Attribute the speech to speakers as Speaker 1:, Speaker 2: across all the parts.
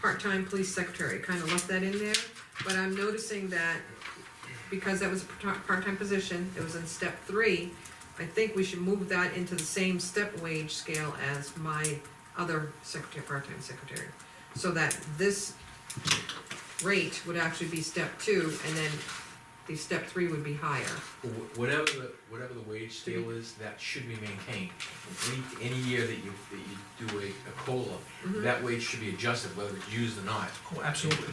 Speaker 1: part-time police secretary, kinda left that in there, but I'm noticing that because that was a part- part-time position, it was in step three, I think we should move that into the same step wage scale as my other secretary, part-time secretary. So that this rate would actually be step two, and then the step three would be higher.
Speaker 2: Wh- Whatever the, whatever the wage scale is, that should be maintained. Any, any year that you, that you do a, a COLA,
Speaker 1: Mhm.
Speaker 2: that wage should be adjusted whether it's used or not.
Speaker 3: Oh, absolutely.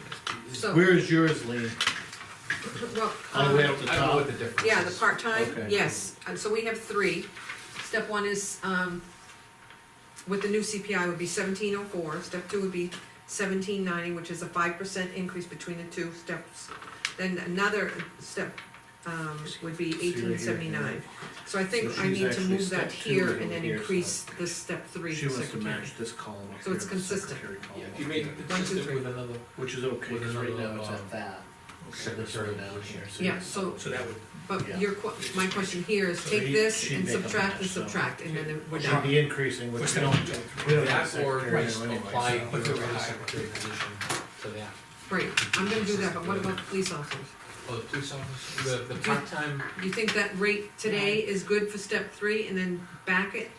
Speaker 1: So,
Speaker 4: Where is yours, Lean?
Speaker 1: well,
Speaker 4: All the way
Speaker 1: um,
Speaker 4: up the
Speaker 2: I don't know
Speaker 4: top?
Speaker 2: what the difference is.
Speaker 1: yeah, the part-time,
Speaker 4: Okay.
Speaker 1: yes, and so we have three. Step one is, um, with the new CPI would be seventeen oh four, step two would be seventeen ninety, which is a five percent increase between the two steps. Then another step, um, would be
Speaker 4: See right here,
Speaker 1: eighteen seventy-nine. So I think
Speaker 4: So
Speaker 1: I
Speaker 4: she's
Speaker 1: need to
Speaker 4: actually
Speaker 1: move that
Speaker 4: step two
Speaker 1: here
Speaker 4: right
Speaker 1: and
Speaker 4: over
Speaker 1: then
Speaker 4: here, so-
Speaker 1: increase this step three
Speaker 4: She
Speaker 1: secretary.
Speaker 4: wants to match this column up
Speaker 1: So
Speaker 4: here,
Speaker 1: it's
Speaker 4: the
Speaker 1: consistent.
Speaker 4: secretary column
Speaker 2: Yeah,
Speaker 4: up
Speaker 2: if you made
Speaker 4: here,
Speaker 2: it
Speaker 1: One, two,
Speaker 2: consistent
Speaker 1: three.
Speaker 2: with another,
Speaker 4: Which is okay,
Speaker 2: With
Speaker 4: because right
Speaker 2: another,
Speaker 4: now it's
Speaker 2: uh,
Speaker 4: at that. So this
Speaker 2: secretary
Speaker 4: one down here, so
Speaker 1: Yeah,
Speaker 4: it's-
Speaker 1: so-
Speaker 3: So that would,
Speaker 4: Yeah.
Speaker 1: But your que- my question here is
Speaker 4: So
Speaker 1: take
Speaker 4: he-
Speaker 1: this
Speaker 4: she'd
Speaker 1: and
Speaker 4: make up the
Speaker 1: subtract and
Speaker 4: match, so-
Speaker 1: subtract, and then we're
Speaker 4: Should
Speaker 1: done.
Speaker 4: be increasing with.
Speaker 3: push that on to
Speaker 4: We don't have a
Speaker 2: that or
Speaker 4: secretary
Speaker 2: just
Speaker 4: anyway,
Speaker 2: apply
Speaker 4: so-
Speaker 3: But
Speaker 2: the
Speaker 3: they're higher.
Speaker 2: secretary position to that.
Speaker 1: Right, I'm gonna do that, but what about the police officers?
Speaker 2: Oh, the police officers, the, the part-time,
Speaker 1: You think that rate today is good for step three and then back it?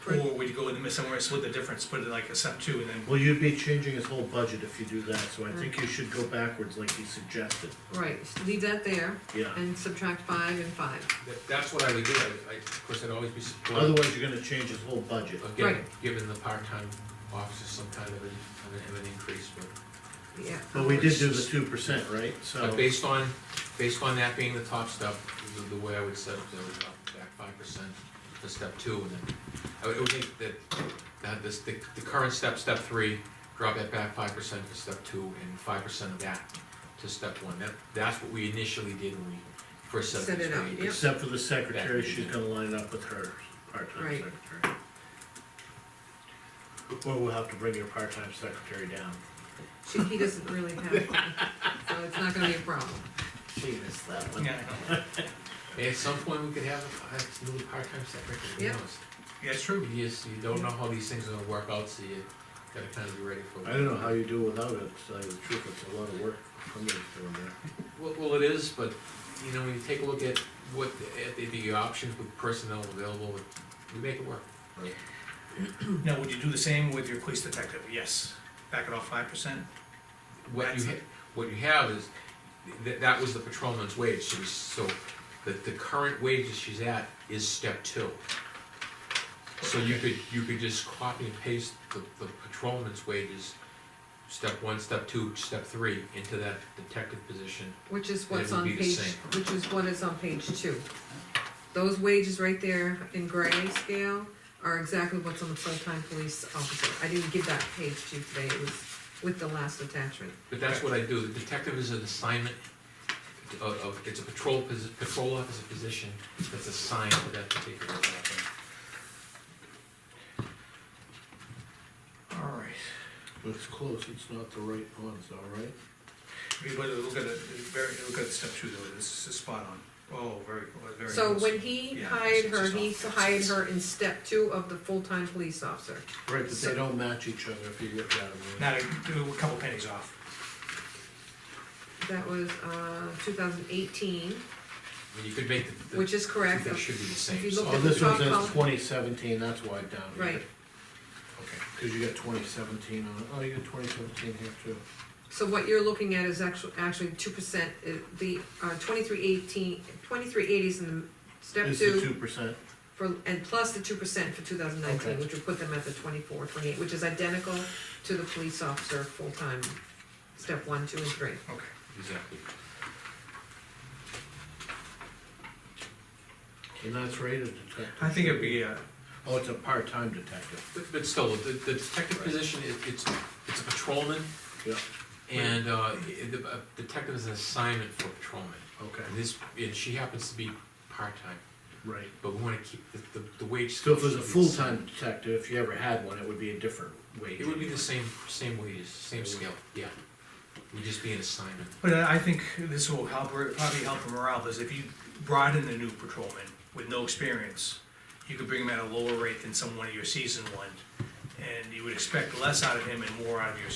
Speaker 1: for-
Speaker 3: or we'd go in the middle somewhere, split the difference, put it like a step two, and then
Speaker 4: Well, you'd be changing his whole budget if you do that, so I think
Speaker 1: Mm.
Speaker 4: you should go backwards like he suggested,
Speaker 1: Right, s- leave that there
Speaker 4: yeah.
Speaker 1: and subtract five and five.
Speaker 2: that- that's what I would do, I, I, of course, I'd always be supportive
Speaker 4: Otherwise, you're gonna change his whole budget.
Speaker 2: of giving,
Speaker 1: Right.
Speaker 2: giving the part-time officers some kind of an, of an increase, but.
Speaker 1: Yeah.
Speaker 4: But we did do the two percent, right? So,
Speaker 2: But based on, based on that being the top step, the, the way I would set it, that would up back five percent for step two, and then, I would, I would think that, that this, the, the current step, step three, drop that back five percent for step two, and five percent of that to step one, that, that's what we initially did when we first set
Speaker 1: Set
Speaker 2: this.
Speaker 1: it up,
Speaker 2: rate.
Speaker 1: yeah.
Speaker 4: except for the secretary, she's gonna line up with her part-time
Speaker 1: Right.
Speaker 4: secretary. Or we'll have to bring your part-time secretary down.
Speaker 1: She- He doesn't really have, it, so it's not gonna be a problem.
Speaker 4: She missed that one.
Speaker 3: Yeah, I know.
Speaker 2: And At some point, we could have a, a little part-time secretary, who
Speaker 1: Yeah.
Speaker 2: knows?
Speaker 3: yeah, it's true.
Speaker 2: You just, you don't know how these things are gonna work out, so you gotta kind of be ready for it.
Speaker 4: I don't know how you do without it, to tell you the truth, it's a lot of work somebody's doing there.
Speaker 2: Well, well, it is, but, you know, when you take a look at what, at the, the options with personnel available, we make it work.
Speaker 3: Now, would you do the same with your police detective? Yes. Back it off five percent?
Speaker 2: What you, ha- what you have is, that, that was the patrolman's wage, so, we- so the, the current wage that she's at is step two. So you could, you could just copy and paste the, the patrolman's wages, step one, step two, step three, into that detective position.
Speaker 1: Which is
Speaker 2: would
Speaker 1: what's on
Speaker 2: be the
Speaker 1: page,
Speaker 2: same.
Speaker 1: which is what is on page two. Those wages right there in gray scale are exactly what's on the full-time police officer. I didn't give that page to you today, it was with the last attachment.
Speaker 2: But that's what I do, the detective is an assignment of, of, it's a patrol posi- patrol officer position that's assigned to that particular officer.
Speaker 3: All right.
Speaker 4: It's close, it's not the right ones, all right?
Speaker 3: If you look at it, very, look at step two though, this is spot on. Oh, very, very.
Speaker 1: So
Speaker 3: nice.
Speaker 1: when he
Speaker 3: Yeah,
Speaker 1: hired
Speaker 3: it's
Speaker 1: her,
Speaker 3: just
Speaker 1: he
Speaker 3: off.
Speaker 1: hired her in step two of the full-time police officer.
Speaker 4: Right, but they don't match each other if you get that one.
Speaker 3: Now, do a couple pennies off.
Speaker 1: That was, uh, two thousand eighteen,
Speaker 2: I mean, you could make the,
Speaker 1: which
Speaker 2: the,
Speaker 1: is correct.
Speaker 2: that should be the
Speaker 1: If
Speaker 2: same,
Speaker 1: you
Speaker 2: so,
Speaker 1: look
Speaker 4: Oh,
Speaker 1: at-
Speaker 4: this one
Speaker 1: Top column.
Speaker 4: says twenty seventeen, that's why down here.
Speaker 1: Right.
Speaker 3: Okay.
Speaker 4: Cause you got twenty seventeen on it, oh, you got twenty seventeen here too.
Speaker 1: So what you're looking at is actually, actually two percent, the, uh, twenty-three eighteen, twenty-three eighties in the step
Speaker 4: This is two
Speaker 1: two
Speaker 4: percent,
Speaker 1: for, and plus the two percent for two thousand nineteen,
Speaker 4: Okay.
Speaker 1: which would put them at the twenty-four, twenty-eight, which is identical to the police officer full-time, step one, two, and three.
Speaker 3: Okay.
Speaker 2: exactly.
Speaker 4: and that's rated detective.
Speaker 3: I think it'd be, uh,
Speaker 4: Oh, it's a part-time detective,
Speaker 2: But, but still, the, the detective
Speaker 4: Right.
Speaker 2: position, it, it's, it's a patrolman,
Speaker 4: yeah,
Speaker 2: and, uh, i- the, a detective is an assignment for a patrolman.
Speaker 4: okay,
Speaker 2: And this, and she happens to be part-time,
Speaker 4: right.
Speaker 2: but we wanna keep, the, the, the wage.
Speaker 4: So if it was a
Speaker 2: should be the same.
Speaker 4: full-time detective, if you ever had one, it would be a different wage.
Speaker 2: It would be
Speaker 4: anyway.
Speaker 2: the same, same wages, same scale, yeah. We'd just be an assignment.
Speaker 3: But I I think this will help, her- probably help her morale, is if you brought in a new patrolman with no experience, you could bring him at a lower rate than someone of your seasoned one, and you would expect less out of him and more out of your